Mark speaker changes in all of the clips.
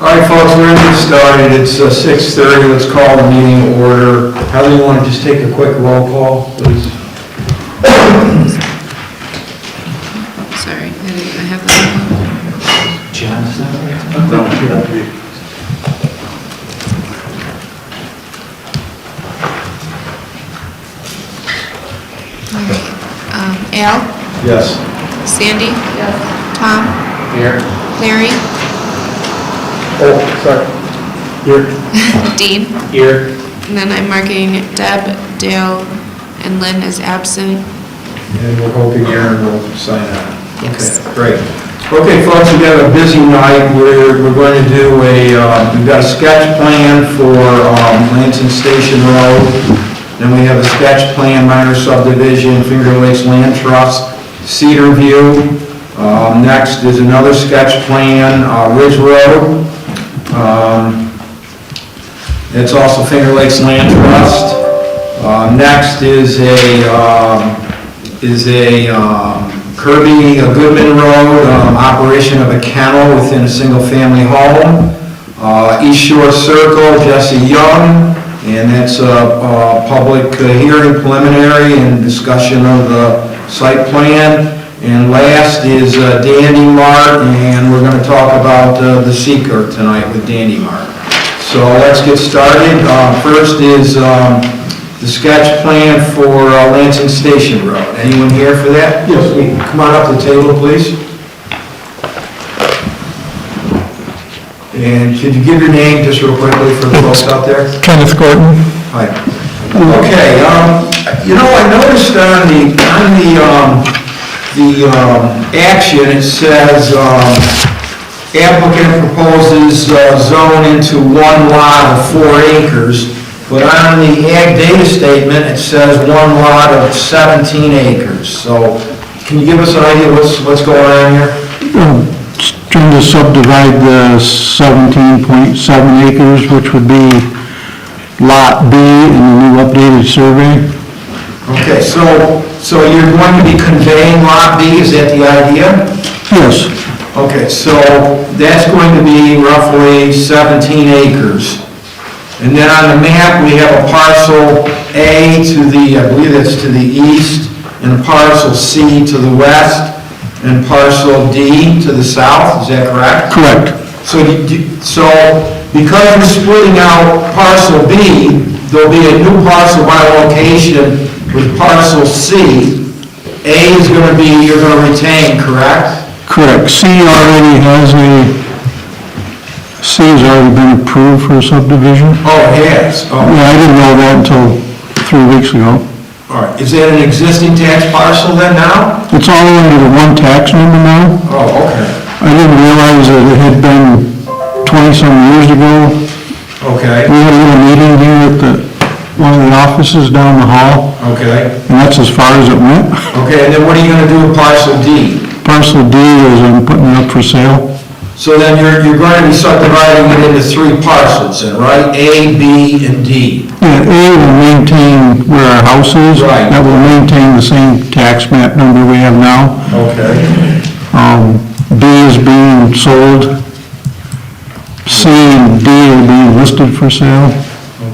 Speaker 1: All right, folks, we're gonna get started. It's uh, 6:30. Let's call the meeting to order. How do you want to just take a quick roll call, please?
Speaker 2: Sorry, I didn't- I have that. one. Um, Al,
Speaker 1: Yes.
Speaker 2: Sandy? Tom? Here. Larry?
Speaker 1: Oh, sorry. Here.
Speaker 2: Dean?
Speaker 1: Here.
Speaker 2: And then I'm marking Deb, Dale, and Lynn as absent.
Speaker 1: And we're hoping Aaron will sign up.
Speaker 2: Yes.
Speaker 1: Okay, Great. Okay, folks, we've got a busy night. We're, we're going to do a, uh, we've got a sketch plan for um, Lansing Station Road. Then we have a sketch plan, minor subdivision, Finger Lakes Land Trust, Cedar View. Um, Next is another sketch plan, uh, Ridge Road. Um, It's also Finger Lakes Land Trust. Uh, Next is a, um, is a um, Kirby uh, Goodman Road, um, operation of a kennel within a single-family home. Uh, East Shore Circle, Jesse Young, and that's a uh, public hearing preliminary and discussion of the site plan. And last is uh, Dandy Mart, and we're going to talk about uh, the seeker tonight with Dandy Mart. So let's get started. Uh, First is um, the sketch plan for uh, Lansing Station Road. Anyone here for that? Yes. Come on up to the table, please. And could you give your name just real quickly for the folks out there?
Speaker 3: Kenneth Gordon.
Speaker 1: Hi. Okay, um, you know, I noticed on the, on the, um, the, um, action, it says, um, applicant proposes uh, zone into one lot of four acres, but on the ag data statement, it says one lot of seventeen acres. So, can you give us an idea what's, what's going on here?
Speaker 3: Um, Trying to subdivide the 17.7 acres, which would be Lot B in the new updated survey.
Speaker 1: Okay, so, so you're going to be conveying lot B, is that the idea?
Speaker 3: Yes,
Speaker 1: Okay, so that's going to be roughly 17 acres. And then on the map, we have a parcel A to the, I believe that's to the east, and a parcel C to the west, and parcel D to the south, is that correct?
Speaker 3: correct.
Speaker 1: So, you- you- so because we're splitting out parcel B, there'll be a new parcel by location with parcel C. A is going to be, you're going to retain, correct?
Speaker 3: Correct. C already has a, C has already been approved for subdivision.
Speaker 1: Oh, yes, oh,
Speaker 3: Yeah, I didn't know that until three weeks ago.
Speaker 1: all right. Is that an existing tax parcel then now?
Speaker 3: It's all under the one tax number now.
Speaker 1: Oh, okay,
Speaker 3: I didn't realize that it had been 20-some years ago We
Speaker 1: okay,
Speaker 3: had a little meeting here at the, one of the offices down the hall,
Speaker 1: okay.
Speaker 3: and that's as far as it went.
Speaker 1: Okay, and then what are you gonna do with parcel D?
Speaker 3: Parcel D is I'm putting it up for sale.
Speaker 1: So then you're, you're going to be subdividing it into three parcels then, right? A, B, and D.
Speaker 3: Yeah, A will maintain where our house is.
Speaker 1: Right.
Speaker 3: That will maintain the same tax map number we have now.
Speaker 1: Okay.
Speaker 3: Um, B is being sold. C and D are being listed for sale.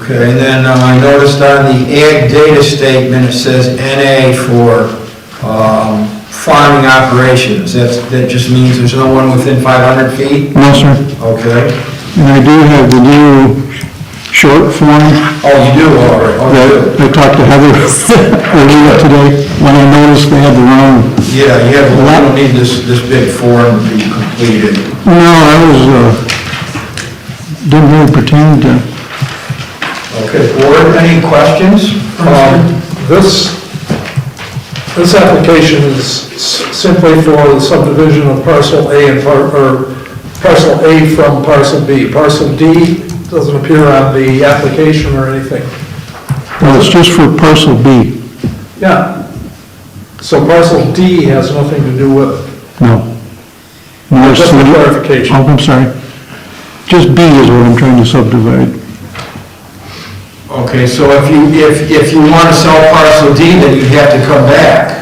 Speaker 1: Okay, and then uh, I noticed on the ag data statement, it says NA for, um, farming operations. That's, that just means there's no one within 500 feet?
Speaker 3: No, sir.
Speaker 1: Okay.
Speaker 3: And I do have the new short form
Speaker 1: Oh, you do, all right, oh, you do.
Speaker 3: that I talked to Heather earlier today, when I noticed they had the wrong
Speaker 1: Yeah, you have, we don't need this, this big form to be completed.
Speaker 3: No, I was, uh, didn't really pertain to,
Speaker 1: Okay, board, any questions?
Speaker 4: Um, This, this application is s- simply for the subdivision of parcel A and par, or parcel A from parcel B. Parcel D doesn't appear on the application or anything.
Speaker 3: well, it's just for parcel B.
Speaker 4: Yeah. So parcel D has nothing to do with,
Speaker 3: No. No, it's
Speaker 4: Oh, just for
Speaker 3: the-
Speaker 4: clarification.
Speaker 3: Oh, I'm sorry. Just B is what I'm trying to subdivide.
Speaker 1: Okay, so if you, if, if you want to sell parcel D, then you'd have to come back.